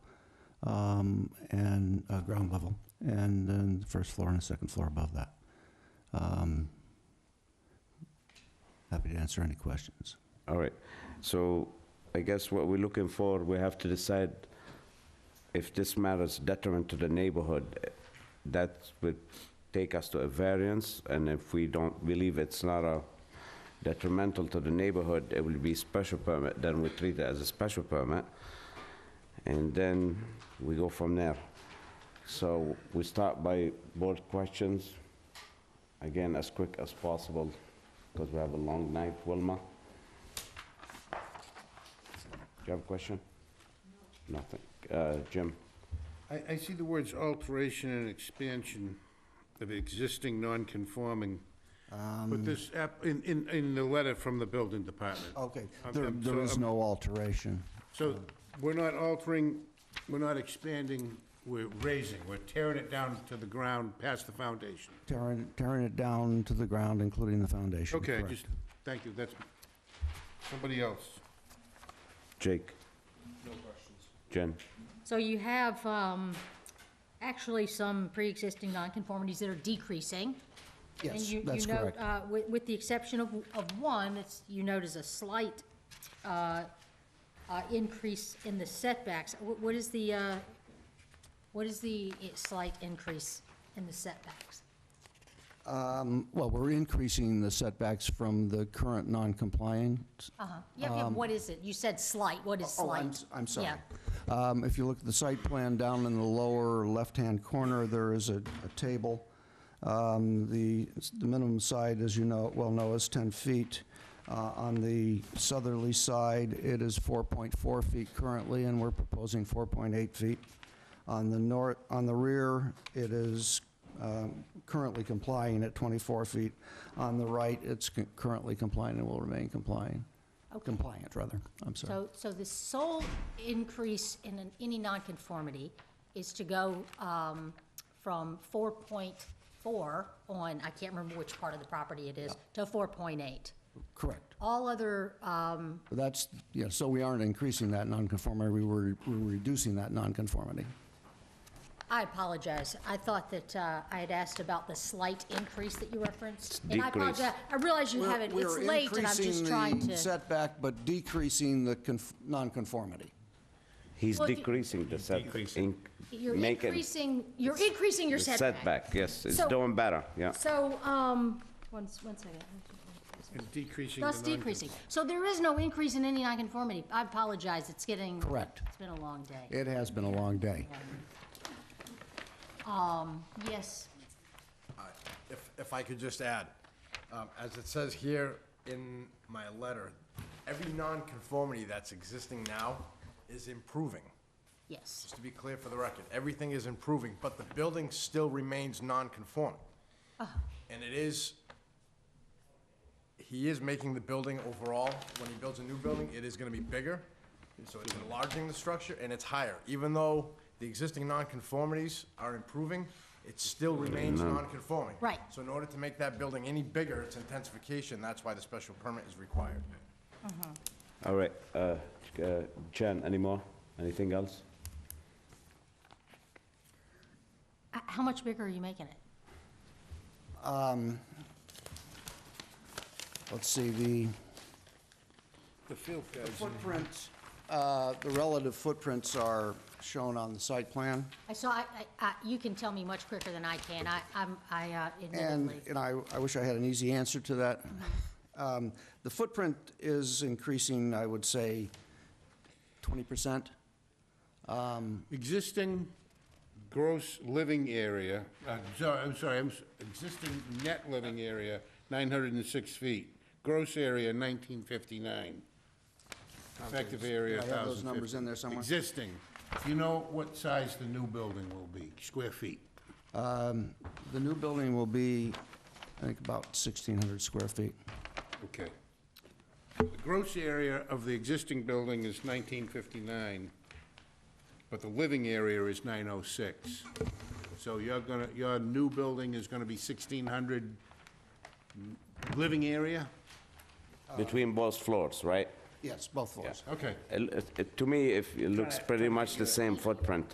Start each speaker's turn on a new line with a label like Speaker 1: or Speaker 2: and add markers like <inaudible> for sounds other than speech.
Speaker 1: um, and, uh, ground level, and then the first floor and the second floor above that. Um, Happy to answer any questions.
Speaker 2: All right, so I guess what we're looking for, we have to decide if this matter is detriment to the neighborhood. That would take us to a variance, and if we don't believe it's not a detrimental to the neighborhood, it will be special permit, then we treat it as a special permit. And then we go from there. So we start by board questions, again, as quick as possible, because we have a long night, Wilma. Do you have a question? Nothing. Uh, Jim?
Speaker 3: I, I see the words alteration and expansion of existing non-conforming. But this, app- in, in, in the letter from the building department.
Speaker 1: Okay,
Speaker 3: I'm-
Speaker 1: there,
Speaker 3: I'm-
Speaker 1: there
Speaker 3: Um, so
Speaker 1: is
Speaker 3: I'm-
Speaker 1: no alteration.
Speaker 3: So we're not altering, we're not expanding, we're raising, we're tearing it down to the ground past the foundation.
Speaker 1: Tearing, tearing it down to the ground, including the foundation.
Speaker 3: Okay,
Speaker 1: correct.
Speaker 3: just, thank you, that's, somebody else.
Speaker 2: Jake? No questions. Jen?
Speaker 4: So you have um, actually some pre-existing nonconformities that are decreasing. And
Speaker 1: Yes,
Speaker 4: you- you
Speaker 1: that's
Speaker 4: note,
Speaker 1: correct.
Speaker 4: uh, With with the exception of of one, it's- you notice a slight uh, uh, increase in the setbacks. Wh- What is the, uh, what is the i- slight increase in the setbacks?
Speaker 1: Um, Well, we're increasing the setbacks from the current non-compliant.
Speaker 4: Uh-huh. Yeah, yeah, what is it? You said slight, what is
Speaker 1: Um, Oh, I'm
Speaker 4: slight?
Speaker 1: s- I'm sorry.
Speaker 4: Yeah.
Speaker 1: Um, If you look at the site plan down in the lower left-hand corner, there is a a table. Um, The the minimum side, as you know, well know, is 10 feet. Uh, On the southerly side, it is 4.4 feet currently, and we're proposing 4.8 feet. On the north, on the rear, it is um, currently complying at 24 feet. On the right, it's cu- currently complying and will remain complying, compliant, rather. I'm sorry.
Speaker 4: So, so the sole increase in an- any nonconformity is to go um, from 4.4 on, I can't remember which part of the property it is, to 4.8.
Speaker 1: Correct.
Speaker 4: All other, um,
Speaker 1: That's, yeah, so we aren't increasing that nonconformity, we were we were reducing that nonconformity.
Speaker 4: I apologize. I thought that uh, I had asked about the slight increase that you referenced. And I
Speaker 2: Decrease.
Speaker 4: apologize. I realize you haven't, it's late and I'm just trying
Speaker 1: We're increasing the
Speaker 4: to.
Speaker 1: setback, but decreasing the conf- nonconformity.
Speaker 2: He's
Speaker 4: Well, the-
Speaker 2: decreasing the setback.
Speaker 4: You're increasing, you're increasing your
Speaker 2: Setback, yes, it's
Speaker 4: So-
Speaker 2: doing better, yeah.
Speaker 4: So, um, one, s- one second.
Speaker 3: And decreasing the
Speaker 4: Thus
Speaker 3: non
Speaker 4: decreasing. So there is no increase in any nonconformity. I apologize, it's getting.
Speaker 1: Correct.
Speaker 4: It's been a long day.
Speaker 1: It has been a long day.
Speaker 4: Yes,
Speaker 5: If, if I could just add, um, as it says here in my letter, every nonconformity that's existing now is improving.
Speaker 4: yes.
Speaker 5: Just to be clear for the record, everything is improving, but the building still remains nonconforming. And it is, he is making the building overall, when he builds a new building, it is gonna be bigger. So it's enlarging the structure and it's higher. Even though the existing nonconformities are improving, it still remains nonconforming.
Speaker 4: Right.
Speaker 5: So in order to make that building any bigger, it's intensification, that's why the special permit is required.
Speaker 2: All right, uh, uh, Jen, any more? Anything else?
Speaker 4: H- Uh, How much bigger are you making it?
Speaker 1: Let's see, the
Speaker 3: The field
Speaker 1: the footprints, uh, the relative footprints are shown on the site plan.
Speaker 4: I saw, I, I, I- you can tell me much quicker than I can. I, I'm, I uh,
Speaker 1: And,
Speaker 4: admittedly.
Speaker 1: and I, I wish I had an easy answer to
Speaker 4: <laughs>
Speaker 1: that. Um, The footprint is increasing, I would say, 20%.
Speaker 3: Existing gross living area, uh, so- I'm sorry, I'm, s- existing net living area, 906 feet. Gross area, 1959. Effective area,
Speaker 1: I
Speaker 3: 1,050.
Speaker 1: have those numbers in there somewhere.
Speaker 3: Existing. Do you know what size the new building will be, square feet?
Speaker 1: The new building will be, I think, about 1,600 square feet.
Speaker 3: Okay. The gross area of the existing building is 1959, but the living area is 906. So you're gonna, your new building is gonna be 1,600 n- living area?
Speaker 2: Between both floors, right?
Speaker 1: Yes, both floors.
Speaker 3: Okay.
Speaker 2: It- it- To me, if it looks pretty much the same footprint.